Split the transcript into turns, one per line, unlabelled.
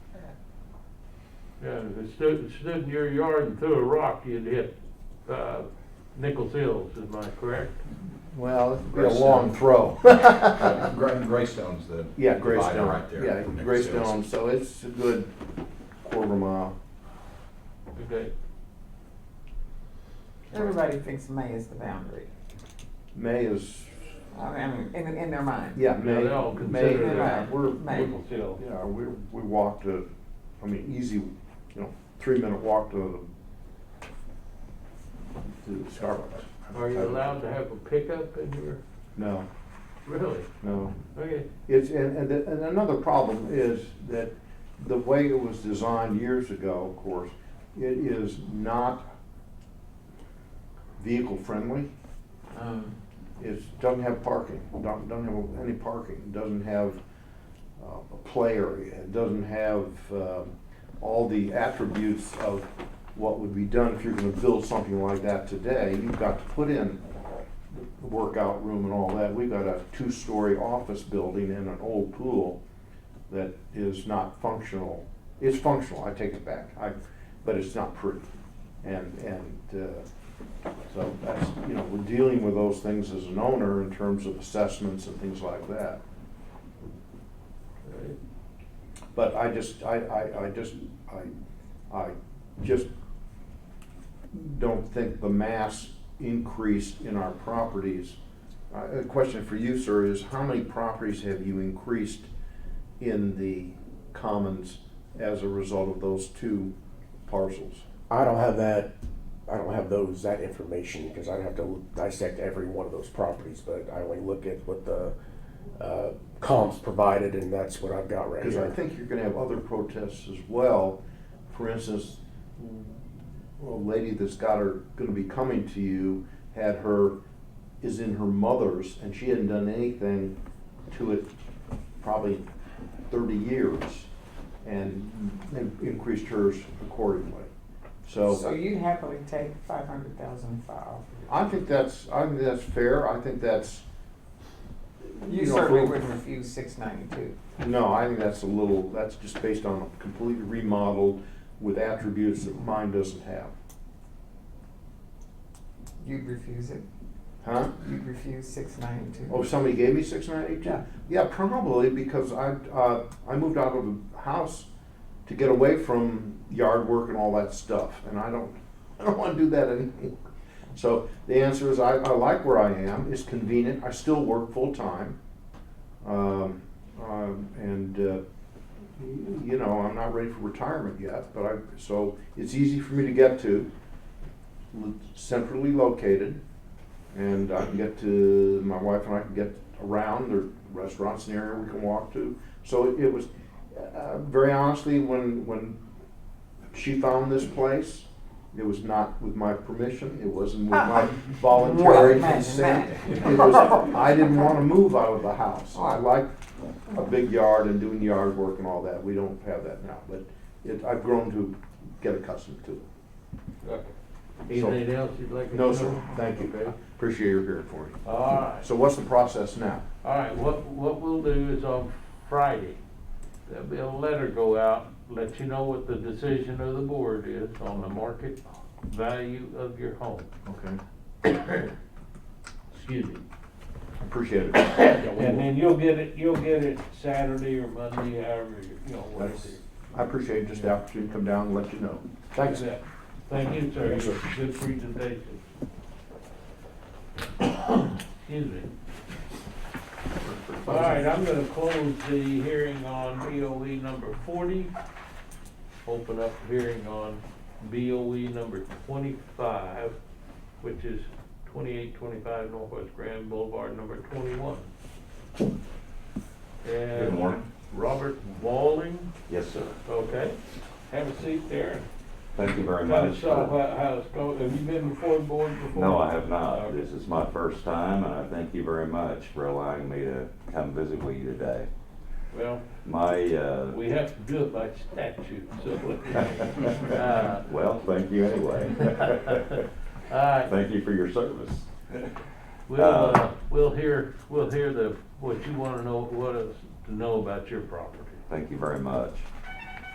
Yeah, if it stood, it stood in your yard and threw a rock, you'd hit, uh, Nichols Hills, am I correct?
Well, it'd be a
Greystone.
long throw.
Uh, Gray, Greystone's the.
Yeah,
divider
Greystone,
Right there.
yeah,
Next to us.
Greystone, so it's a good quarter of a mile.
Okay,
Everybody thinks May is the boundary.
May is,
I mean, in, in their mind.
yeah, May,
they all
May,
consider
yeah,
that.
we're,
May.
Nichols Hill.
yeah, we, we walked a, I mean, easy, you know, three minute walk to the, to the Starbucks.
Are you allowed to have a pickup in your,
No,
really?
no.
Okay,
It's, and, and, the- and another problem is that the way it was designed years ago, of course, it is not vehicle friendly.
Um,
It's, doesn't have parking, don't, don't have any parking, doesn't have uh, a play area, it doesn't have um, all the attributes of what would be done if you're gonna build something like that today. You've got to put in the workout room and all that. We've got a two-story office building and an old pool that is not functional. It's functional, I take it back, I, but it's not pretty. And, and, uh, so that's, you know, we're dealing with those things as an owner in terms of assessments and things like that.
all right.
But I just, I, I, I just, I, I just don't think the mass increase in our properties. Uh, a question for you, sir, is how many properties have you increased in the commons as a result of those two parcels?
I don't have that, I don't have those, that information, because I'd have to dissect every one of those properties, but I only look at what the, uh, comps provided, and that's what I've got right
Because I
here.
think you're gonna have other protests as well. For instance, a lady that's got her, gonna be coming to you, had her, is in her mother's, and she hadn't done anything to it probably thirty years, and they increased hers accordingly.
So
So,
you'd happily take five hundred thousand five.
I think that's, I think that's fair, I think that's,
You
you know,
certainly
for-
wouldn't refuse six ninety-two.
No, I think that's a little, that's just based on a completely remodeled with attributes that mine doesn't have.
You'd refuse it.
Huh?
You'd refuse six ninety-two.
Oh, somebody gave me six nine eight two?
Yeah.
Yeah, probably because I, uh, I moved out of the house to get away from yard work and all that stuff, and I don't, I don't wanna do that anymore. So the answer is I, I like where I am, it's convenient, I still work full-time. Um, um, and, uh, y- you know, I'm not ready for retirement yet, but I, so it's easy for me to get to, l- centrally located. And I can get to, my wife and I can get around, there are restaurants in the area we can walk to. So it- it was, uh, very honestly, when, when she found this place, it was not with my permission, it wasn't with my voluntary
Well,
consent.
imagine that.
It was, I didn't wanna move out of the house. I like a big yard and doing yard work and all that, we don't have that now, but it, I've grown to get accustomed to it.
Okay. Anything else you'd like to know?
No, sir, thank you,
Okay.
appreciate your hearing for me.
All right,
So what's the process now?
all right, what, what we'll do is on Friday, there'll be a letter go out, let you know what the decision of the board is on the market value of your home.
Okay.
Excuse me.
Appreciate it. Yeah,
And
we will.
then you'll get it, you'll get it Saturday or Monday, however, you you know, whatever.
That's- I appreciate just the opportunity to come down and let you know. Thanks.
Yeah. Thank you, sir.
Yes, sir.
Good presentation. Excuse me. All right, I'm gonna close the hearing on BOE number forty. Open up hearing on BOE number twenty-five, which is twenty-eight twenty-five Northwest Grand Boulevard, number twenty-one.
Good
And
morning.
Robert Walling,
Yes, sir.
okay, have a seat there.
Thank you very
Kind of
much.
saw how, how it's going, have you been before the board before?
No, I have not.
Okay.
This is my first time, and I thank you very much for allowing me to come visit with you today.
Well,
My, uh,
we have to do it by statute, so. uh,
well, thank you anyway.
All right,
Thank you for your service.
we'll, uh, we'll hear, we'll hear the, what you wanna know, what is to know about your property.
Thank you very much.